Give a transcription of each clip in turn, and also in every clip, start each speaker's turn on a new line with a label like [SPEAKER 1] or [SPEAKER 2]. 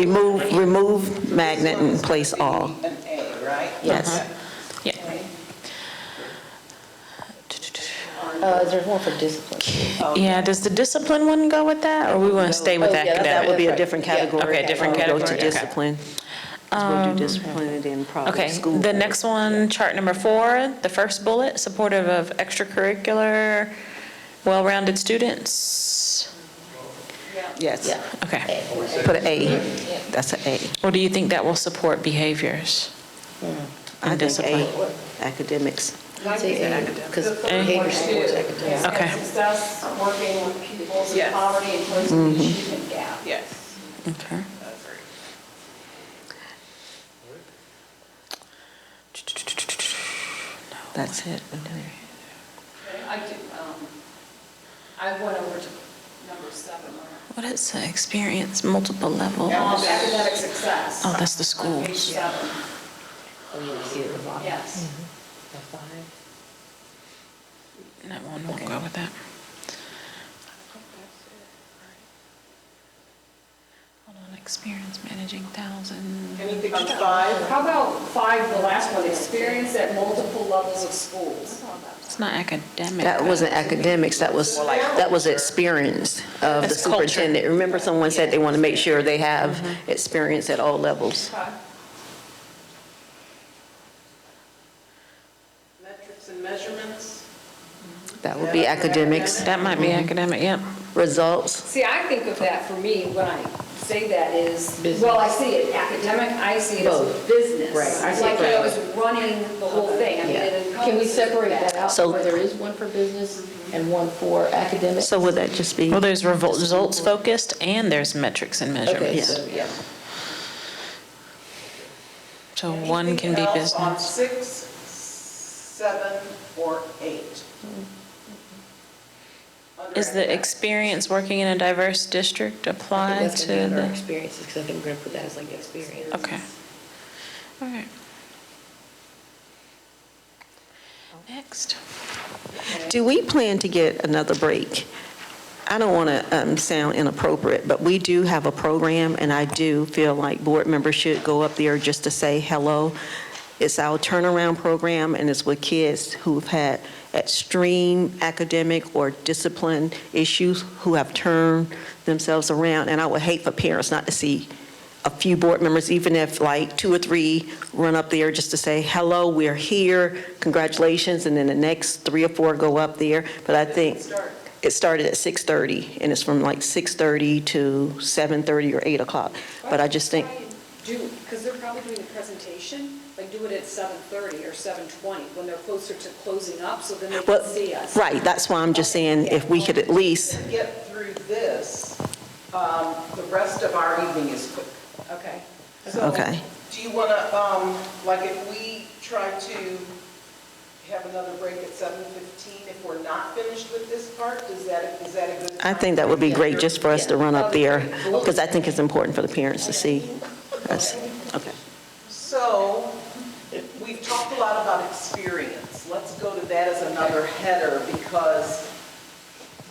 [SPEAKER 1] remove, remove magnet and place all.
[SPEAKER 2] An A, right?
[SPEAKER 1] Yes.
[SPEAKER 2] Okay.
[SPEAKER 3] Uh, there's one for discipline.
[SPEAKER 4] Yeah, does the discipline one go with that, or we want to stay with
[SPEAKER 3] Oh, yeah, that-
[SPEAKER 1] That would
[SPEAKER 4] academic?
[SPEAKER 1] be a different
[SPEAKER 3] Yeah,
[SPEAKER 1] category.
[SPEAKER 4] okay, different
[SPEAKER 1] Go to
[SPEAKER 4] category, okay.
[SPEAKER 1] discipline. 'Cause We'll do discipline and then probably
[SPEAKER 4] Okay,
[SPEAKER 1] school.
[SPEAKER 4] the next one, chart number four, the first bullet, supportive of extracurricular, well-rounded students.
[SPEAKER 1] Yes,
[SPEAKER 3] Yeah.
[SPEAKER 4] Okay,
[SPEAKER 1] put an A. That's an A.
[SPEAKER 4] or do you think that will support behaviors?
[SPEAKER 1] I
[SPEAKER 4] And
[SPEAKER 1] think
[SPEAKER 4] discipline.
[SPEAKER 1] A, academics.
[SPEAKER 3] Because
[SPEAKER 4] Eh.
[SPEAKER 3] behavior supports academics.
[SPEAKER 4] Okay.
[SPEAKER 5] Success, working with pupils in
[SPEAKER 2] Yes.
[SPEAKER 5] poverty and closing the achievement gap.
[SPEAKER 2] Yes.
[SPEAKER 4] Okay.
[SPEAKER 2] Agree.
[SPEAKER 1] That's it.
[SPEAKER 5] I do, um, I went over to number seven.
[SPEAKER 4] What is the experience, multiple level?
[SPEAKER 5] Um,
[SPEAKER 4] Oh,
[SPEAKER 5] Academic success.
[SPEAKER 4] that's the
[SPEAKER 5] On page
[SPEAKER 4] schools.
[SPEAKER 5] seven,
[SPEAKER 3] Oh, you see at the bottom.
[SPEAKER 5] yes.
[SPEAKER 3] The five.
[SPEAKER 4] That one won't go with that. Hold on, experience managing thousand.
[SPEAKER 2] Anything on five?
[SPEAKER 5] How about five, the last one, experience at multiple levels of schools?
[SPEAKER 4] It's not academic.
[SPEAKER 3] That
[SPEAKER 4] but-
[SPEAKER 3] wasn't academics, that was, that was experience of the
[SPEAKER 4] That's culture.
[SPEAKER 3] superintendent. Remember someone said they want to make sure they have experience at all levels?
[SPEAKER 2] Metrics and measurements?
[SPEAKER 3] That would be academics.
[SPEAKER 4] That might
[SPEAKER 3] Mm-hmm.
[SPEAKER 4] be academic, yep.
[SPEAKER 3] Results,
[SPEAKER 5] See, I think of that for me, when I say that is, well, I see it academic, I see it as
[SPEAKER 3] Both.
[SPEAKER 5] business.
[SPEAKER 3] Right, I see it
[SPEAKER 5] Like, you know,
[SPEAKER 3] both.
[SPEAKER 5] it's running the whole thing. I mean, it encompasses
[SPEAKER 6] Can we separate that out,
[SPEAKER 3] So-
[SPEAKER 6] where there is one for business and one for academic?
[SPEAKER 3] so would that just be,
[SPEAKER 4] Well, there's revol- results focused and there's metrics and
[SPEAKER 6] Okay,
[SPEAKER 4] measurements.
[SPEAKER 6] so, yeah.
[SPEAKER 4] So one can be
[SPEAKER 2] Anything else on
[SPEAKER 4] business.
[SPEAKER 2] six, seven, or eight? Under
[SPEAKER 4] Is the
[SPEAKER 2] academic.
[SPEAKER 4] experience working in a diverse district
[SPEAKER 3] I
[SPEAKER 4] apply
[SPEAKER 3] think that's
[SPEAKER 4] to
[SPEAKER 3] going to be under
[SPEAKER 4] the?
[SPEAKER 3] experiences, because I think we're going to put that as like experience.
[SPEAKER 4] Okay. All right. Next.
[SPEAKER 1] Do we plan to get another break? I don't want to sound inappropriate, but we do have a program, and I do feel like board members should go up there just to say hello. It's our turnaround program, and it's with kids who've had extreme academic or discipline issues who have turned themselves around, and I would hate for parents not to see a few board members, even if like two or three run up there just to say, hello, we're here, congratulations, and then the next three or four go up there. But I think it started at 6:30, and it's from like 6:30 to 7:30 or 8 o'clock. But I just think,
[SPEAKER 5] Do, because they're probably doing the presentation, like do it at 7:30 or 7:20, when they're closer to closing up, so then they
[SPEAKER 1] well,
[SPEAKER 5] can see us.
[SPEAKER 1] right, that's why I'm just saying if we could at least,
[SPEAKER 2] To get through this, um, the rest of our evening is quick.
[SPEAKER 5] Okay.
[SPEAKER 2] So,
[SPEAKER 1] Okay.
[SPEAKER 2] Do you want to, um, like, if we try to have another break at 7:15, if we're not finished with this part, is that, is that a good
[SPEAKER 1] I
[SPEAKER 2] time?
[SPEAKER 1] think that would be great just for us to run up there, because I think it's important for the parents to see us. Okay.
[SPEAKER 2] So, we've talked a lot about experience. Let's go to that as another header because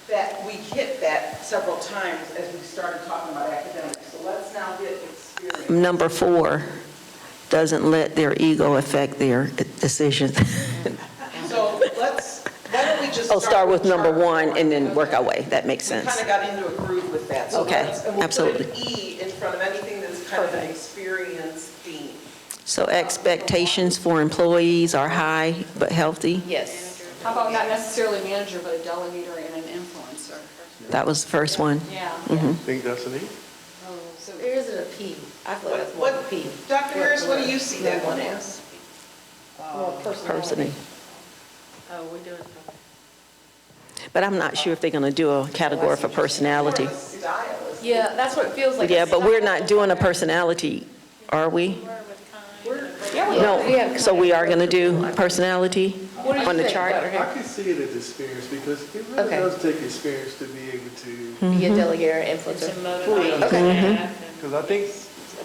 [SPEAKER 2] that, we hit that several times as we started talking about academics. So let's now get experience.
[SPEAKER 1] Number four, doesn't let their ego affect their decisions.
[SPEAKER 2] So let's, why don't we just start?
[SPEAKER 1] Oh, start with number
[SPEAKER 2] chart
[SPEAKER 1] one and then work our way. That makes
[SPEAKER 2] We kind
[SPEAKER 1] sense.
[SPEAKER 2] of got into a groove with that. So
[SPEAKER 1] Okay,
[SPEAKER 2] let's- And we'll put an E in front of anything that's kind of an experience theme.
[SPEAKER 1] So expectations for employees are high but healthy.
[SPEAKER 3] Yes.
[SPEAKER 5] How about not necessarily manager, but a delegator and an influencer?
[SPEAKER 1] That was the first one.
[SPEAKER 5] Yeah.
[SPEAKER 7] Think that's an E?
[SPEAKER 3] So there isn't a P. I feel
[SPEAKER 2] What,
[SPEAKER 3] that's more of a
[SPEAKER 2] what-
[SPEAKER 3] P.
[SPEAKER 2] Dr. Harris, what do you see that one as?
[SPEAKER 3] More
[SPEAKER 1] Personally.
[SPEAKER 3] personality.
[SPEAKER 6] Oh, we're doing,
[SPEAKER 1] But I'm not sure if they're going to do a category for personality.
[SPEAKER 2] More of a style, is it?
[SPEAKER 6] yeah, that's what it feels like.
[SPEAKER 1] Yeah, but we're not doing a personality, are we? No, so we are going to do personality on the chart?
[SPEAKER 7] I can see it as experience because it really
[SPEAKER 3] Okay.
[SPEAKER 7] does take experience to be able
[SPEAKER 1] Mm-hmm.
[SPEAKER 7] to,
[SPEAKER 3] Be a delegate or influencer.
[SPEAKER 7] fully
[SPEAKER 3] Okay. Mm-hmm.
[SPEAKER 7] because I think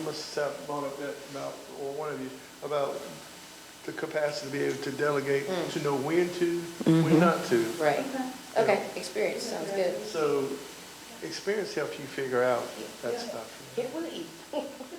[SPEAKER 7] Ms. Sapp brought up that about, or one of you, about the capacity to be able to delegate, to know when to, when not to.
[SPEAKER 3] Hmm. Mm-hmm. Right. Okay, experience, sounds good.
[SPEAKER 7] So experience helps you figure out that stuff.
[SPEAKER 3] It will eat.